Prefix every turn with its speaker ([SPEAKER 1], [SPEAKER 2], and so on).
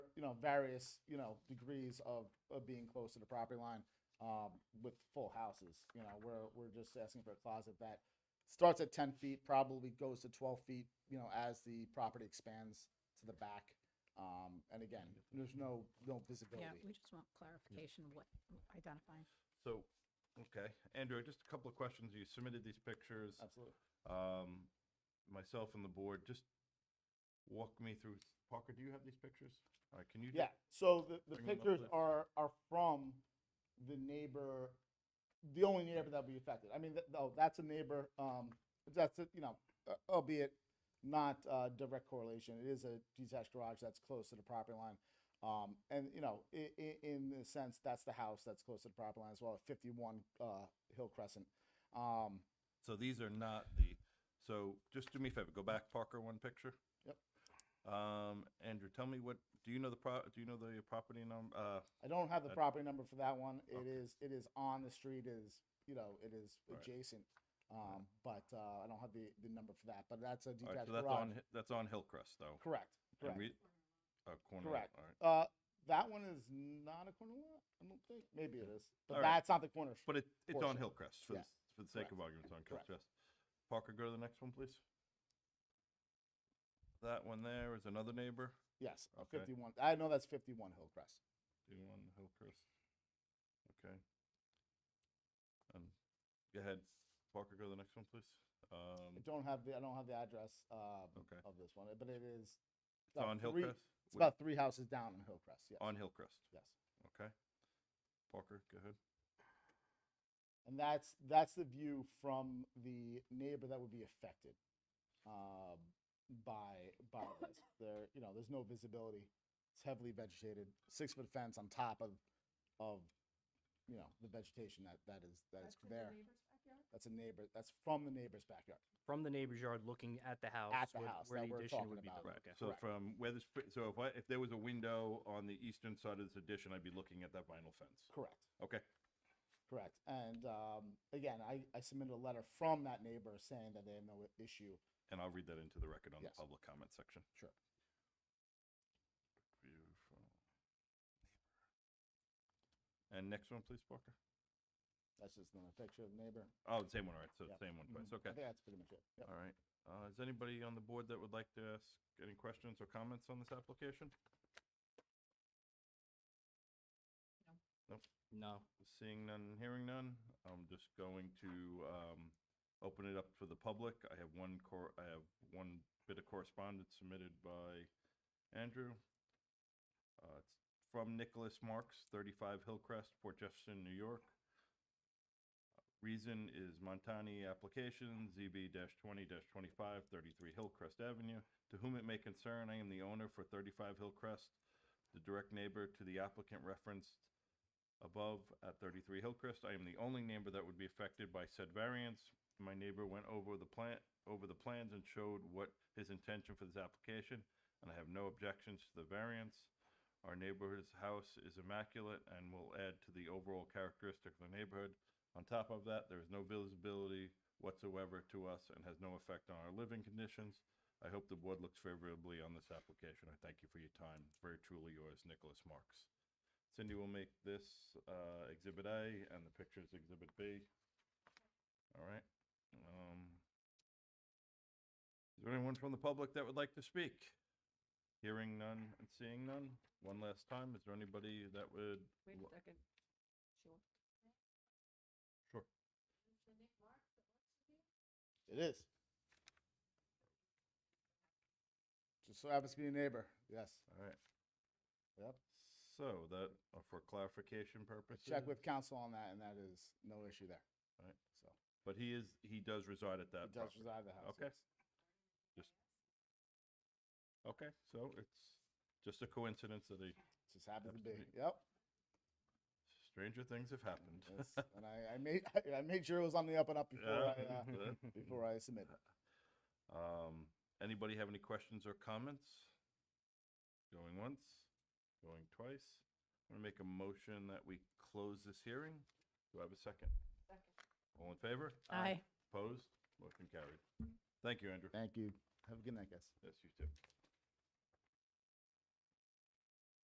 [SPEAKER 1] you know, various, you know, degrees of, of being close to the property line um, with full houses. You know, we're, we're just asking for a closet that starts at 10 feet, probably goes to 12 feet, you know, as the property expands to the back. Um, and again, there's no, no visibility.
[SPEAKER 2] Yeah, we just want clarification of what we're identifying.
[SPEAKER 3] So, okay, Andrew, just a couple of questions. You submitted these pictures.
[SPEAKER 1] Absolutely.
[SPEAKER 3] Um, myself and the board, just walk me through. Parker, do you have these pictures? All right, can you? do-
[SPEAKER 1] Yeah, so the, the
[SPEAKER 3] Bring 'em up,
[SPEAKER 1] pictures
[SPEAKER 3] please.
[SPEAKER 1] are, are from the neighbor, the only neighbor that will be affected. I mean, th- though, that's a neighbor, um, that's, a- you know, uh, albeit not, uh, direct correlation. It is a detached garage that's close to the property line. Um, and, you know, i- i- in the sense, that's the house that's close to the property line as well, at fifty-one, uh, Hill Crescent. Um,
[SPEAKER 3] So these are not the, so just do me a favor, go back, Parker, one picture.
[SPEAKER 1] Yep.
[SPEAKER 3] Um, Andrew, tell me what, do you know the pro, do you know the property number? Uh,
[SPEAKER 1] I don't have the
[SPEAKER 3] Uh,
[SPEAKER 1] property number for that one. It
[SPEAKER 3] okay.
[SPEAKER 1] is, it is on the street, it is, you know, it is
[SPEAKER 3] All right.
[SPEAKER 1] adjacent. Um, but, uh, I don't have the, the number for that, but that's a
[SPEAKER 3] all right,
[SPEAKER 1] detached
[SPEAKER 3] so that's
[SPEAKER 1] garage.
[SPEAKER 3] on, Hi- that's on Hillcrest though.
[SPEAKER 1] Correct,
[SPEAKER 3] And
[SPEAKER 1] correct.
[SPEAKER 3] we- uh, corner, lot,
[SPEAKER 1] Correct.
[SPEAKER 3] all right.
[SPEAKER 1] Uh, that one is not a corner lot, I don't think. Maybe it is, but
[SPEAKER 3] All right.
[SPEAKER 1] that's not the corner.
[SPEAKER 3] But it, it's on
[SPEAKER 1] Portion.
[SPEAKER 3] Hillcrest for,
[SPEAKER 1] Yeah,
[SPEAKER 3] the s- for the sake
[SPEAKER 1] correct,
[SPEAKER 3] of argument, it's on
[SPEAKER 1] correct.
[SPEAKER 3] Hillcrest. Parker, go to the next one, please. That one there is another neighbor,
[SPEAKER 1] Yes, a
[SPEAKER 3] Okay.
[SPEAKER 1] fifty-one, I know that's fifty-one Hillcrest.
[SPEAKER 3] do you want Hillcrest? Okay. And, go ahead, Parker, go to the next one, please.
[SPEAKER 1] I
[SPEAKER 3] Um,
[SPEAKER 1] don't have the, I don't have the address, uh,
[SPEAKER 3] okay.
[SPEAKER 1] of this one, but it is.
[SPEAKER 3] It's
[SPEAKER 1] about
[SPEAKER 3] on
[SPEAKER 1] three-
[SPEAKER 3] Hillcrest?
[SPEAKER 1] It's
[SPEAKER 3] Would-
[SPEAKER 1] about three houses down in Hillcrest, yes,
[SPEAKER 3] On Hillcrest,
[SPEAKER 1] yes.
[SPEAKER 3] okay. Parker, go ahead.
[SPEAKER 1] And that's, that's the view from the neighbor that would be affected, um, by, by this. There, you know, there's no visibility. It's heavily vegetated, six foot fence on top of, of, you know, the vegetation that, that is, that is there. That's a neighbor, that's from the neighbor's backyard.
[SPEAKER 4] from the neighbor's yard looking at the house.
[SPEAKER 1] At the
[SPEAKER 4] where-
[SPEAKER 1] house
[SPEAKER 4] where
[SPEAKER 1] that
[SPEAKER 4] the
[SPEAKER 1] we're
[SPEAKER 4] addition
[SPEAKER 1] talking
[SPEAKER 4] would be
[SPEAKER 1] about.
[SPEAKER 4] built,
[SPEAKER 3] Right,
[SPEAKER 4] okay.
[SPEAKER 3] so
[SPEAKER 1] Correct.
[SPEAKER 3] from where this, fi- so if I, if there was a window on the eastern side of this addition, I'd be looking at that vinyl fence.
[SPEAKER 1] Correct.
[SPEAKER 3] Okay,
[SPEAKER 1] Correct. And, um, again, I, I submitted a letter from that neighbor saying that they have no issue.
[SPEAKER 3] and I'll read that into the record on the
[SPEAKER 1] Yes.
[SPEAKER 3] public comment section.
[SPEAKER 1] Sure.
[SPEAKER 3] View from- And next one, please, Parker.
[SPEAKER 1] That's just another picture of the neighbor.
[SPEAKER 3] Oh, same one, all right, so
[SPEAKER 1] Yep.
[SPEAKER 3] same one twice,
[SPEAKER 1] Mhm. I
[SPEAKER 3] okay.
[SPEAKER 1] think that's pretty much it. Yep.
[SPEAKER 3] All right. Uh, is anybody on the board that would like to ask any questions or comments on this application?
[SPEAKER 4] No,
[SPEAKER 3] Seeing none, and hearing none, I'm just going to um, open it up for the public. I have one cor, I have one bit of correspondence submitted by Andrew. Uh, It's From Nicholas Marks, 35 Hillcrest, Port Jefferson, New York. Reason is Montani application, ZB-20-25, 33 Hillcrest Avenue. To whom it may concern, I am the owner for 35 Hillcrest. The direct neighbor to the applicant referenced above at 33 Hillcrest. I am the only neighbor that would be affected by said variance. My neighbor went over the plan, over the plans and showed what his intention for this application, and I have no objections to the variance. Our neighborhood's house is immaculate and will add to the overall characteristic of the neighborhood. On top of that, there is no visibility whatsoever to us and has no effect on our living conditions. I hope the board looks favorably on this application. I thank you for your time. Very truly yours, Nicholas Marks. Cindy will make this uh, Exhibit A and the pictures Exhibit B. All right. Um, Is there anyone from the public that would like to speak? Hearing none and seeing none. One last time, is there anybody that would?
[SPEAKER 2] Wait
[SPEAKER 3] Wha-
[SPEAKER 2] a second. Sure.
[SPEAKER 3] Sure.
[SPEAKER 1] It is. Just so happens to be a neighbor. Yes.
[SPEAKER 3] All right.
[SPEAKER 1] Yep.
[SPEAKER 3] So that, uh, for clarification purposes.
[SPEAKER 1] Check with council on that, and that is no issue there.
[SPEAKER 3] Right.
[SPEAKER 1] So
[SPEAKER 3] But he is, he does reside at that
[SPEAKER 1] it does
[SPEAKER 3] property.
[SPEAKER 1] reside in the house.
[SPEAKER 3] Okay.
[SPEAKER 1] yes.
[SPEAKER 3] Okay, so it's just a coincidence that a
[SPEAKER 1] Just happens to be.
[SPEAKER 3] Absolutely.
[SPEAKER 1] Yep.
[SPEAKER 3] stranger things have happened.
[SPEAKER 1] Yes. and I, I made I, made sure it was on the up and up before
[SPEAKER 3] Yeah.
[SPEAKER 1] I uh, before I submitted.
[SPEAKER 3] Um, anybody have any questions or comments? Going once, going twice. I'm gonna make a motion that we close this hearing. Do I have a second? All in favor?
[SPEAKER 2] Aye.
[SPEAKER 3] Opposed? Motion carried. Thank you, Andrew.
[SPEAKER 1] Thank you. Have a good night, guys.
[SPEAKER 3] Yes, you too.